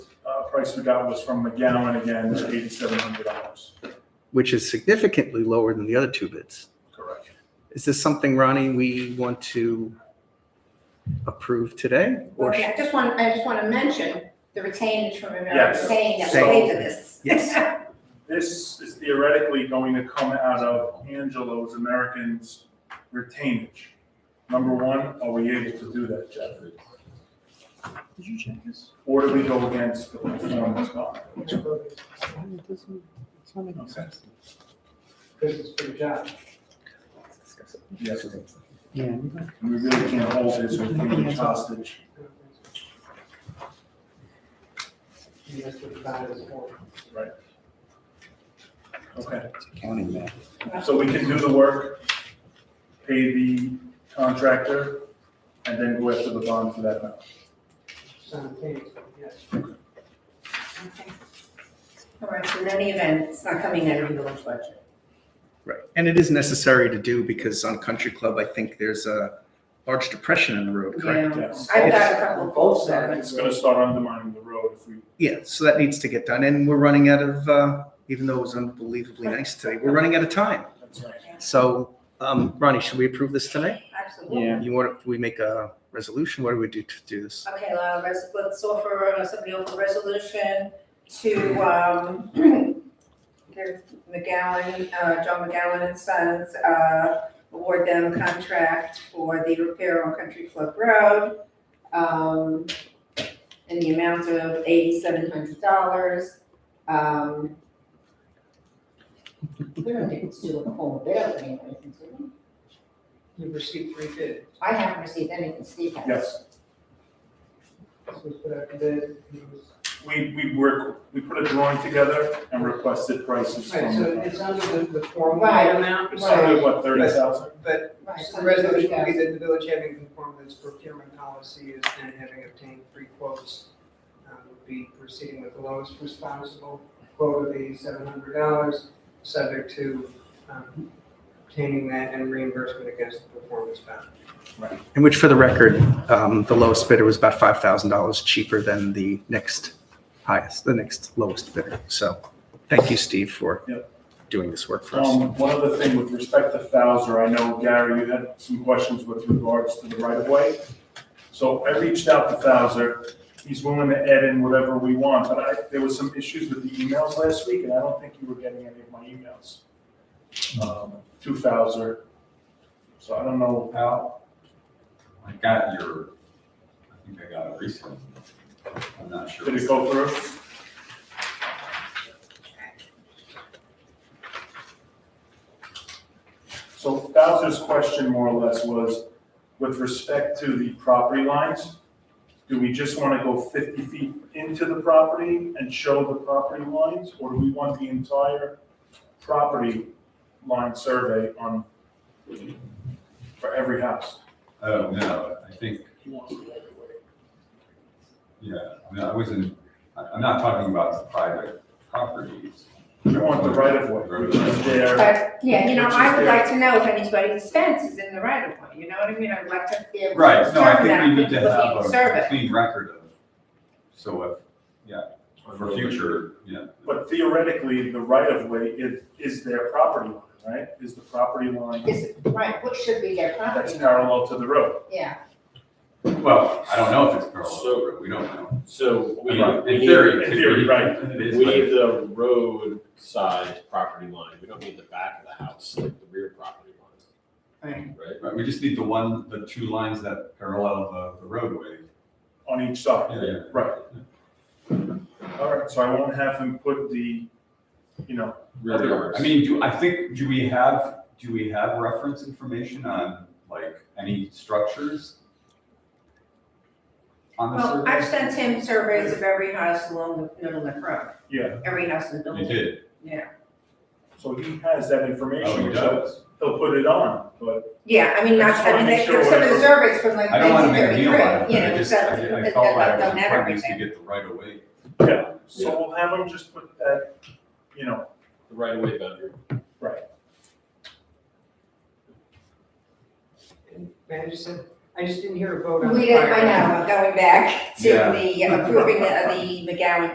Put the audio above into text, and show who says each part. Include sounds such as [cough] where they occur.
Speaker 1: Uh, price we got was from McGowan again, eighty-seven hundred dollars.
Speaker 2: which is significantly lower than the other two bids.
Speaker 1: Correct.
Speaker 2: Is this something, Ronnie, we want to approve today? Or
Speaker 3: Okay, I just want, I just want to mention the retainage from American
Speaker 1: Yes.
Speaker 3: saying that we
Speaker 2: Same.
Speaker 3: paid for this.
Speaker 2: Yes.
Speaker 1: This is theoretically going to come out of Angelo's Americans retainage. Number one, are we able to do that, Jeff?
Speaker 4: Did you check this?
Speaker 1: Or do we go against the performance bond?
Speaker 4: It doesn't, it's not making sense.
Speaker 5: This is for the job.
Speaker 1: Yes,
Speaker 4: Yeah.
Speaker 1: we really can't hold this retainage hostage.
Speaker 5: And that's what the bond is for.
Speaker 1: Okay,
Speaker 4: Counting that.
Speaker 1: so we can do the work, pay the contractor, and then go after the bond for that amount.
Speaker 5: Simultaneously, yes.
Speaker 3: Okay. All right, so in any event, it's not coming out of the village budget.
Speaker 2: Right. And it is necessary to do because on Country Club, I think there's a large depression in the road, correct?
Speaker 3: Yeah.
Speaker 1: Yes.
Speaker 3: I've got a couple of
Speaker 5: Both
Speaker 3: quotes
Speaker 5: sides.
Speaker 3: there.
Speaker 1: It's gonna start undermining the road if we,
Speaker 2: Yeah, so that needs to get done. And we're running out of, uh, even though it was unbelievably nice today, we're running out of time.
Speaker 1: that's right.
Speaker 2: So, um, Ronnie, should we approve this tonight?
Speaker 3: Absolutely.
Speaker 4: Yeah.
Speaker 2: You want, we make a resolution? What do we do to do this?
Speaker 3: Okay, uh, res- let's offer, uh, somebody offer a resolution to, um, [clears throat] give McGowan, uh, John McGowan and Sons, uh, award them contract for the repair on Country Club Road, um, in the amount of eighty-seven hundred dollars. Um,
Speaker 6: We don't think it's due in a formal bid opening or anything, do we?
Speaker 5: You've received three bids.
Speaker 6: I haven't received anything, Steve has.
Speaker 1: Yes,
Speaker 5: This was put out to bid, and it was-
Speaker 1: we, we work, we put a drawing together and requested prices
Speaker 5: Right,
Speaker 1: from
Speaker 5: so it's
Speaker 1: the.
Speaker 5: under the, the formal
Speaker 3: Right.
Speaker 5: amount,
Speaker 1: It's gonna
Speaker 5: so,
Speaker 1: be, what, thirty thousand?
Speaker 5: but,
Speaker 6: Right,
Speaker 5: so the resolution would be that the village having conformed with its procurement policy is then having obtained three quotes, um, would be proceeding with the lowest responsible quote of eighty-seven hundred dollars, subject to, um, obtaining that and reimbursement against the performance bond.
Speaker 2: And which, for the record, um, the lowest bidder was about five thousand dollars cheaper than the next highest, the next lowest bidder. So, thank you, Steve, for
Speaker 1: Yep.
Speaker 2: doing this work for us.
Speaker 1: Um, one other thing with respect to Fowler, I know, Gary, you had some questions with regards to the right of way. So I reached out to Fowler, he's willing to add in whatever we want, but I, there was some issues with the emails last week, and I don't think you were getting any of my emails. Um, to Fowler, so I don't know
Speaker 7: Al, I got your, I think I got it recently. I'm not sure.
Speaker 1: Did it go through? So Bowser's question more or less was, with respect to the property lines, do we just want to go 50 feet into the property and show the property lines? Or do we want the entire property line survey on, for every house?
Speaker 7: Oh, no, I think,
Speaker 1: He wants the right of way.
Speaker 7: yeah, I mean, I wasn't, I- I'm not talking about the private properties.
Speaker 1: We want the right of way, which is there.
Speaker 3: But, yeah, you know,
Speaker 1: Which is
Speaker 3: I would
Speaker 1: there.
Speaker 3: like to know if anybody's fence is in the right of way, you know what I mean? I'd like to be able to
Speaker 7: Right, no, I
Speaker 3: determine
Speaker 7: think
Speaker 3: that
Speaker 7: we need to
Speaker 3: with the
Speaker 7: have
Speaker 3: survey.
Speaker 7: a clean record of, so if, for future, yeah.
Speaker 1: But theoretically, the right of way is, is their property line, right? Is the property line
Speaker 6: Is, right, which should be their
Speaker 1: that's
Speaker 6: property,
Speaker 1: parallel to the road.
Speaker 6: yeah.
Speaker 7: Well, I don't know if it's parallel, to the road, we don't know.
Speaker 8: So
Speaker 7: I
Speaker 8: we,
Speaker 7: mean,
Speaker 8: we
Speaker 7: In
Speaker 8: need-
Speaker 7: theory, it
Speaker 1: in
Speaker 7: could
Speaker 1: theory,
Speaker 7: be-
Speaker 1: right.
Speaker 7: It
Speaker 8: we
Speaker 7: is,
Speaker 8: need
Speaker 7: but
Speaker 8: the roadside property line, we don't need the back of the house, like the rear property line, right?
Speaker 7: right, we just need the one, the two lines that parallel the- the roadway.
Speaker 1: On each side,
Speaker 7: Yeah, yeah.
Speaker 1: right? All right, so I won't have him put the, you know,
Speaker 8: Rear yards.
Speaker 7: I mean, do, I think, do we have, do we have reference information on, like, any structures? On the
Speaker 3: Well,
Speaker 7: survey?
Speaker 3: I've sent him surveys of every house along the middle of the road,
Speaker 1: yeah,
Speaker 3: every house in the
Speaker 7: You
Speaker 3: building.
Speaker 7: did?
Speaker 1: so he has that
Speaker 7: Oh,
Speaker 1: information,
Speaker 7: he
Speaker 1: which he'll,
Speaker 7: does?
Speaker 1: he'll put it on, but
Speaker 3: Yeah, I mean,
Speaker 1: I
Speaker 3: not,
Speaker 1: just
Speaker 3: I
Speaker 1: wanna
Speaker 3: mean,
Speaker 1: make
Speaker 3: they,
Speaker 1: sure
Speaker 3: some of the
Speaker 1: whatever-
Speaker 3: surveys from like
Speaker 7: I don't wanna make a
Speaker 3: nineteen
Speaker 7: deal out of
Speaker 3: thirty-three,
Speaker 7: it,
Speaker 3: you
Speaker 7: but I
Speaker 3: know,
Speaker 7: just,
Speaker 3: so
Speaker 7: I
Speaker 3: that,
Speaker 7: I
Speaker 3: that,
Speaker 7: felt like
Speaker 3: that
Speaker 7: it was
Speaker 3: done
Speaker 7: important to
Speaker 3: everything.
Speaker 7: get the right of way.
Speaker 1: yeah.
Speaker 8: Yeah.
Speaker 1: So we'll have him just put that, you know,
Speaker 8: The right of way boundary.
Speaker 5: And I just said, I just didn't hear a vote on the
Speaker 3: We
Speaker 5: prior.
Speaker 3: didn't, I know, going back [laughs] to uh,
Speaker 7: Yeah.
Speaker 3: the approving of the McGowan